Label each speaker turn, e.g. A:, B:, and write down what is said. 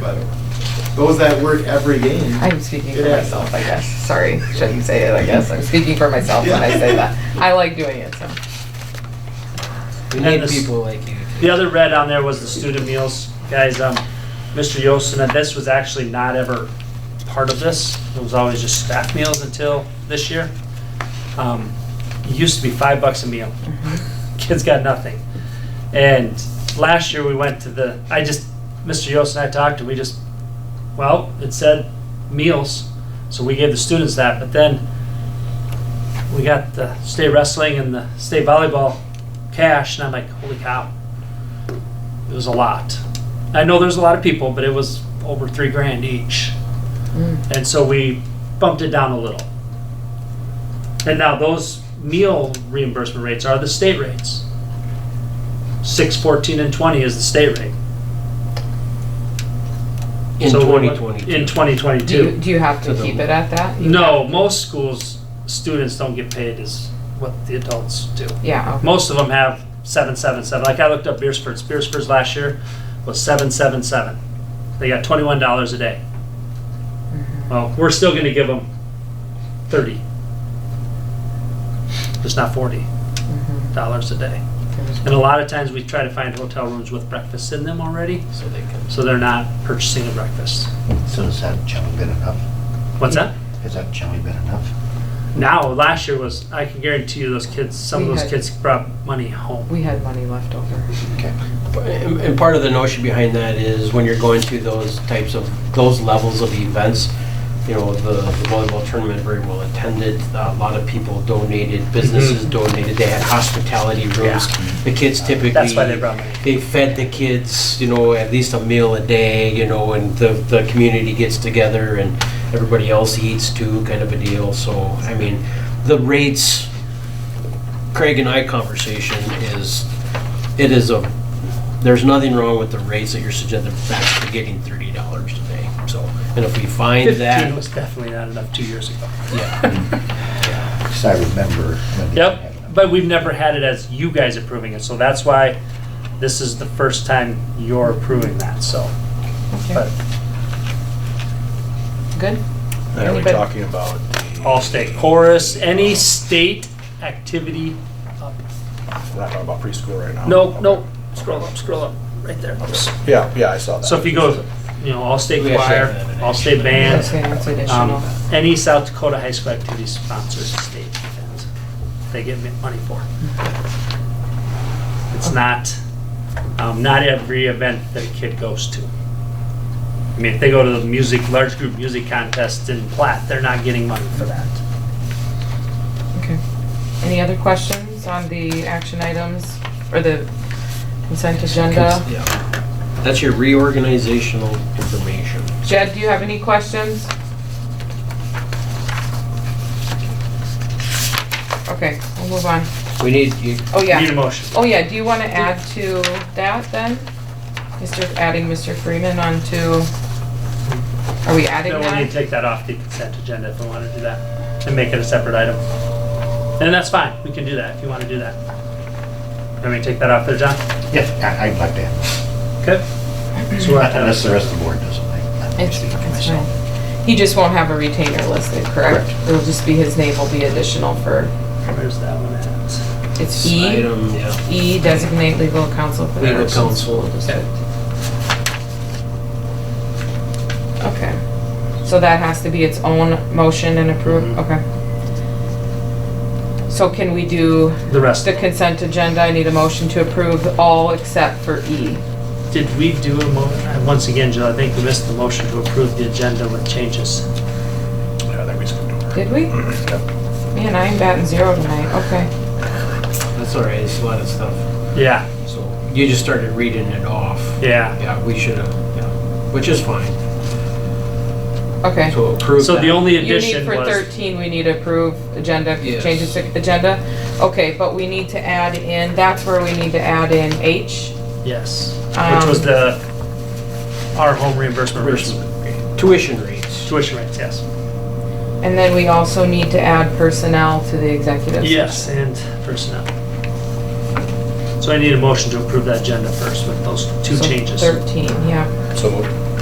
A: but those that work every game.
B: I'm speaking for
A: It adds
B: myself,
A: up.
B: I guess. Sorry, shouldn't say it, I guess. I'm speaking for myself when I say that. I like doing it, so.
C: We
D: And
C: need
D: this-
C: people like you.
D: The other red on there was the student meals. Guys, um, Mr. Yosten, and this was actually not ever part of this. It was always just staff meals until this year. Um, it used to be five bucks a meal. Kids got nothing. And last year we went to the, I just, Mr. Yost and I talked and we just, well, it said meals, so we gave the students that, but then we got the state wrestling and the state volleyball cash, and I'm like, holy cow. It was a lot. I know there's a lot of people, but it was over three grand each.
B: Mm.
D: And so we bumped it down a little. And now those meal reimbursement rates are the state rates. Six, fourteen, and twenty is the state rate.
C: In
D: So we went-
C: 2022.
D: In twenty
B: Do you,
D: twenty-two.
B: do you have to
C: To the-
B: keep it at that? You
D: No,
B: have-
D: most schools, students don't get paid as what the adults do.
B: Yeah, okay.
D: Most of them have seven, seven, seven. Like I looked up Beersford's. Beersford's last year was seven, seven, seven. They got twenty-one dollars a day. Well, we're still gonna give them thirty. Just not forty
B: Mhm.
D: dollars a day.
B: There was-
D: And a lot of times we try to find hotel rooms with breakfast in them already,
C: So they can.
D: so they're not purchasing a breakfast.
E: So is that chummy bit enough?
D: What's that?
E: Is that chummy bit enough?
D: Now, last year was, I can guarantee you those kids, some of
B: We
D: those
B: had-
D: kids brought money home.
B: We had money left over.
E: Okay.
C: And and part of the notion behind that is when you're going through those types of, those levels of events, you know, the the volleyball tournament very well attended, a lot of people donated, businesses donated, they had hospitality
D: Mm-hmm. Yeah.
C: rooms. The kids typically.
D: That's why they brought money.
C: They fed the kids, you know, at least a meal a day, you know, and the, the community gets together and everybody else eats too, kind of a deal. So, I mean, the rates, Craig and I conversation is, it is a, there's nothing wrong with the rates that you're suggesting, back to getting thirty dollars today. So, and if we find
D: Fifteen
C: that,
D: was definitely not enough two years ago.
C: yeah,
E: Because I remember when they didn't have
D: Yep,
E: enough.
D: but we've never had it as you guys approving it, so that's why this is the first time you're approving that, so. But
B: Okay. Good?
F: And are we
B: Anybody-
F: talking about the,
D: all state chorus, any state activity, up.
F: we're not talking about preschool right now?
D: no,
F: Okay.
D: no, scroll up, scroll up, right there.
F: Yeah, yeah, I saw that.
D: So if you go, you know, all state
C: We actually
D: choir,
C: have that in
D: all state
B: Okay,
D: band,
B: it's additional.
D: um, any South Dakota high school activity sponsors a state event, they get mi- money for it. It's not, um, not every event that a kid goes to. I mean, if they go to the music, large group music contest in Platt, they're not getting money for that.
B: Okay. Any other questions on the action items or the consent agenda?
C: yeah. That's your reorganizational information.
B: Jed, do you have any questions? Okay, we'll move on.
C: We need, you,
B: Oh,
D: Need a
B: yeah.
D: motion.
B: Oh, yeah, do you want to add to that then? Mr., adding Mr. Freeman onto, are we adding
D: Then we'll need to
B: that?
D: take that off the consent agenda if we want to do that and make it a separate item. And that's fine, we can do that if you want to do that. Let me to take that off there, John?
E: Yes, I- I'd like that.
D: Okay. So we'll have to-
E: Unless the rest of the board doesn't. I- I'm
B: It's-
E: speaking for
B: it's
E: myself.
B: fine. He just won't have a retainer listed, correct?
E: Correct.
B: It'll just be, his name will be additional for,
D: Where's that one at?
B: it's E,
C: item, yeah.
B: E designate legal counsel for the
C: Legal
B: Erickson School
C: counsel, okay.
B: District. Okay, so that has to be its own motion and approve,
D: Mhm.
B: okay. So can we do
D: The rest.
B: the consent agenda? I need a motion to approve all except for E.
D: Did we do a mo, uh, once again, Jill, I think we missed the motion to approve the agenda with changes.
F: Yeah, I think we skipped over.
B: Did we?
F: Yep.
D: Mm-hmm.
B: Man, I am batting zero tonight, okay.
C: That's all right, it's a lot of stuff.
D: Yeah,
C: So you just started reading it off.
D: yeah.
C: Yeah, we should have, yeah, which is fine.
B: Okay.
C: So approve
D: So the
C: that.
D: only
B: You need
D: addition
B: for
D: was,
B: thirteen, we need to approve agenda,
C: Yes.
B: changes to agenda. Okay, but we need to add in, that's where we need to add in H.
D: yes, which
B: Um,
D: was the, our home reimbursement versus
C: Tuition rates.
D: tuition rates, yes.
B: And then we also need to add personnel to the executive.
D: Yes, and personnel. So I need a motion to approve that agenda first with those two
B: So
D: changes.
B: Thirteen, yeah.
F: So moved.